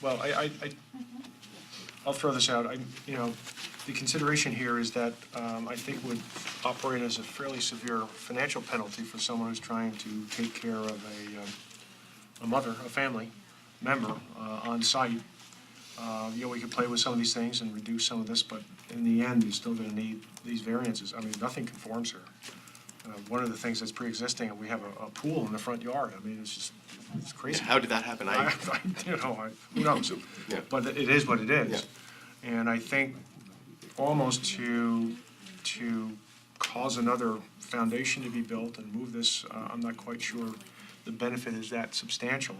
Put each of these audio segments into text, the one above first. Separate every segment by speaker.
Speaker 1: Well, I, I, I- I'll throw this out. I, you know, the consideration here is that um, I think would operate as a fairly severe financial penalty for someone who's trying to take care of a, um, a mother, a family member uh, on site. Uh, You know, we could play with some of these things and reduce some of this, but in the end, you're still going to need these variances. I mean, nothing conforms here. Uh, One of the things that's pre-existing, we have a, a pool in the front yard. I mean, it's just, it's crazy.
Speaker 2: How did that happen? I,
Speaker 1: I- You know, I- who knows?
Speaker 2: Yeah.
Speaker 1: But it is what it is.
Speaker 2: Yeah.
Speaker 1: And I think almost to, to cause another foundation to be built and move this, uh, I'm not quite sure the benefit is that substantial.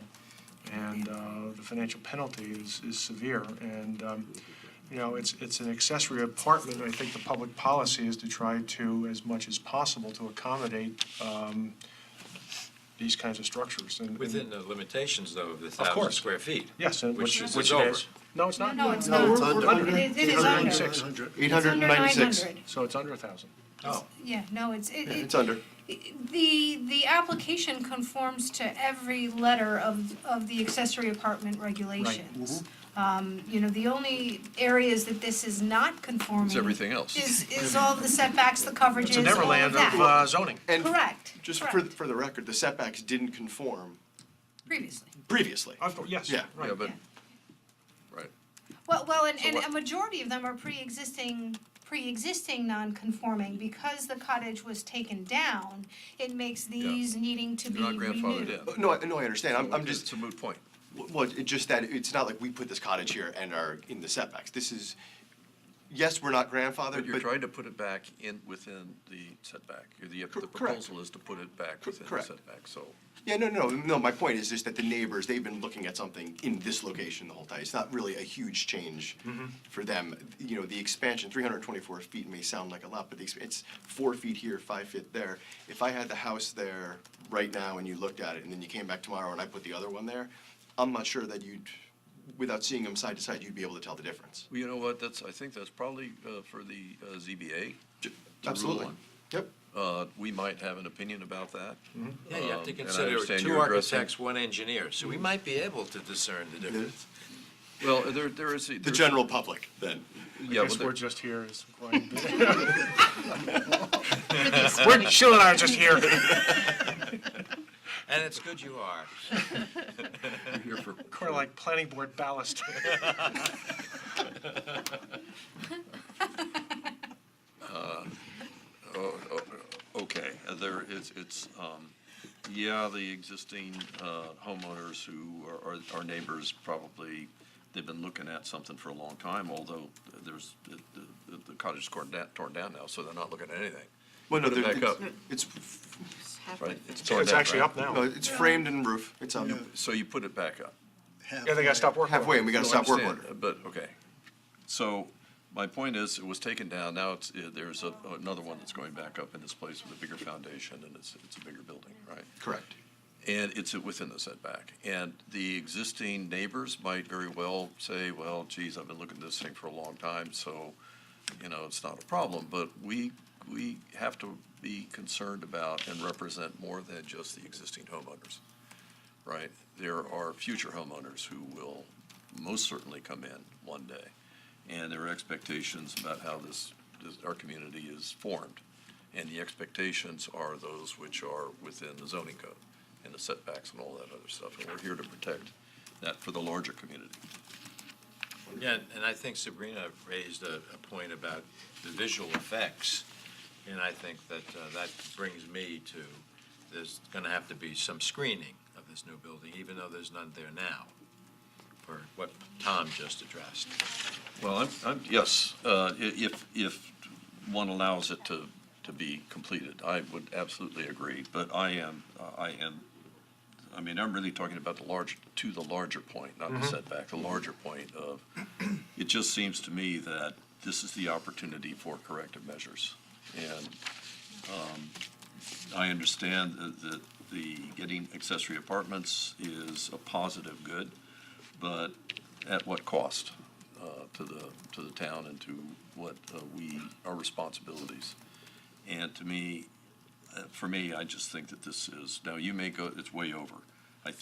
Speaker 1: And uh, the financial penalty is, is severe. And, um, you know, it's, it's an accessory apartment. I think the public policy is to try to, as much as possible, to accommodate um, these kinds of structures. And- and-
Speaker 3: Within the limitations, though, of the
Speaker 1: Of course.
Speaker 3: thousand square feet.
Speaker 1: Yes, and which,
Speaker 3: is
Speaker 1: which it
Speaker 3: over.
Speaker 1: is. No, it's not.
Speaker 4: No, it's
Speaker 2: No,
Speaker 4: not.
Speaker 2: it's under.
Speaker 4: It is- it is under. It's
Speaker 1: 196.
Speaker 2: eight hundred and
Speaker 4: under
Speaker 2: ninety-six.
Speaker 4: 900.
Speaker 1: So it's under a 1,000.
Speaker 3: Oh,
Speaker 4: Yeah, no, it's, it,
Speaker 2: It's
Speaker 4: it-
Speaker 2: under.
Speaker 4: the, the application conforms to every letter of, of the accessory apartment regulations.
Speaker 2: Mm-hmm.
Speaker 4: Um, you know, the only areas that this is not conforming.
Speaker 5: It's everything else.
Speaker 4: Is, is all the setbacks, the
Speaker 1: It's
Speaker 4: coverages,
Speaker 1: a
Speaker 4: all of
Speaker 1: Neverland of
Speaker 4: that.
Speaker 1: uh, zoning.
Speaker 2: And
Speaker 4: Correct,
Speaker 2: Just for,
Speaker 4: correct,
Speaker 2: for the record, the setbacks didn't conform
Speaker 4: previously.
Speaker 2: previously.
Speaker 4: Uh,
Speaker 1: Of course, yes,
Speaker 2: Yeah.
Speaker 1: right.
Speaker 5: Yeah, but,
Speaker 4: Yeah.
Speaker 5: right.
Speaker 4: Well, well, and, and a
Speaker 5: what-
Speaker 4: majority of them are pre-existing, pre-existing non-conforming, because the cottage was taken down, it makes these needing to be
Speaker 5: You're not
Speaker 4: renewed.
Speaker 5: grandfathered in.
Speaker 2: No, I, no, I understand. I'm, I'm
Speaker 5: It's
Speaker 2: just,
Speaker 5: a moot point.
Speaker 2: well, it's just that it's not like we put this cottage here and are in the setbacks. This is, yes, we're not
Speaker 5: But
Speaker 2: grandfathered,
Speaker 5: you're
Speaker 2: but
Speaker 5: trying to put it back in, within the setback. The the
Speaker 2: Cor- correct.
Speaker 5: proposal is to put it back
Speaker 2: Cor-
Speaker 5: within the
Speaker 2: correct.
Speaker 5: setback, so.
Speaker 2: Yeah, no, no, no, my point is just that the neighbors, they've been looking at something in this location the whole time. It's not really a huge change
Speaker 1: Mm-hmm.
Speaker 2: for them. You know, the expansion, three hundred and twenty-four feet may sound like a lot, but the, exp- it's four feet here, five feet there. If I had the house there right now and you looked at it, and then you came back tomorrow and I put the other one there, I'm not sure that you'd, without seeing them side to side, you'd be able to tell the difference.
Speaker 5: Well, you know what, that's, I think that's probably uh, for the uh, ZBA.
Speaker 2: J-
Speaker 5: rule
Speaker 2: Absolutely.
Speaker 5: one.
Speaker 2: Yep.
Speaker 5: Uh, We might have an opinion about that.
Speaker 3: yeah, you have to
Speaker 5: Um, and I
Speaker 3: consider
Speaker 5: understand
Speaker 3: two
Speaker 5: you're addressing-
Speaker 3: architects, one engineer, so we
Speaker 2: Mm-hmm.
Speaker 3: might be able to discern the difference.
Speaker 5: Well, there, there is.
Speaker 2: The general public, then.
Speaker 5: Yeah,
Speaker 1: I
Speaker 5: well,
Speaker 1: guess
Speaker 5: there-
Speaker 1: we're just here as quite. We're, Sheila and I are just here.
Speaker 3: And it's good you are.
Speaker 5: here for-
Speaker 1: We're like planning board ballast.
Speaker 5: Okay, uh, there, it's, it's, um, yeah, the existing uh, homeowners who are, are- are neighbors probably, they've been looking at something for a long time, although there's, the- the- the cottage is torn down, torn down now, so they're not looking at anything,
Speaker 2: Well, no,
Speaker 5: Put it
Speaker 2: there-
Speaker 5: back
Speaker 2: it's-
Speaker 5: up.
Speaker 2: It's,
Speaker 5: right? It's torn
Speaker 1: It's
Speaker 5: down,
Speaker 1: actually
Speaker 5: right?
Speaker 1: up
Speaker 2: no,
Speaker 1: now.
Speaker 2: it's framed and roof. It's up.
Speaker 5: So you put it back up.
Speaker 1: Yeah, they got to stop working. on it.
Speaker 2: halfway and we got to
Speaker 5: No, I
Speaker 2: stop work
Speaker 5: understand,
Speaker 2: order.
Speaker 5: But, okay. So my point is, it was taken down, now it's, uh, there's a- another one that's going back up in this place with a bigger foundation and it's, it's a bigger building, right?
Speaker 2: Correct.
Speaker 5: And it's within the setback. And the existing neighbors might very well say, well, geez, I've been looking at this thing for a long time, so, you know, it's not a problem. But we, we have to be concerned about and represent more than just the existing homeowners, right? There are future homeowners who will most certainly come in one day. And there are expectations about how this, this, our community is formed. And the expectations are those which are within the zoning code and the setbacks and all that other stuff. And we're here to protect that for the larger community.
Speaker 3: Yeah, and I think Sabrina raised a, a point about the visual effects, and I think that, uh, that brings me to, there's gonna have to be some screening of this new building, even though there's none there now, for what Tom just addressed.
Speaker 5: Well, I'm, I'm, yes, uh, i- if, if one allows it to, to be completed, I would absolutely agree. But I am, uh, I am, I mean, I'm really talking about the large, to the larger point, not the setback, the larger point of, it just seems to me that this is the opportunity for corrective measures. And um, I understand that- that the, getting accessory apartments is a positive good, but at what cost? uh, to the, to the town and to what uh, we, our responsibilities. And to me, uh, for me, I just think that this is, now you may go, it's way over,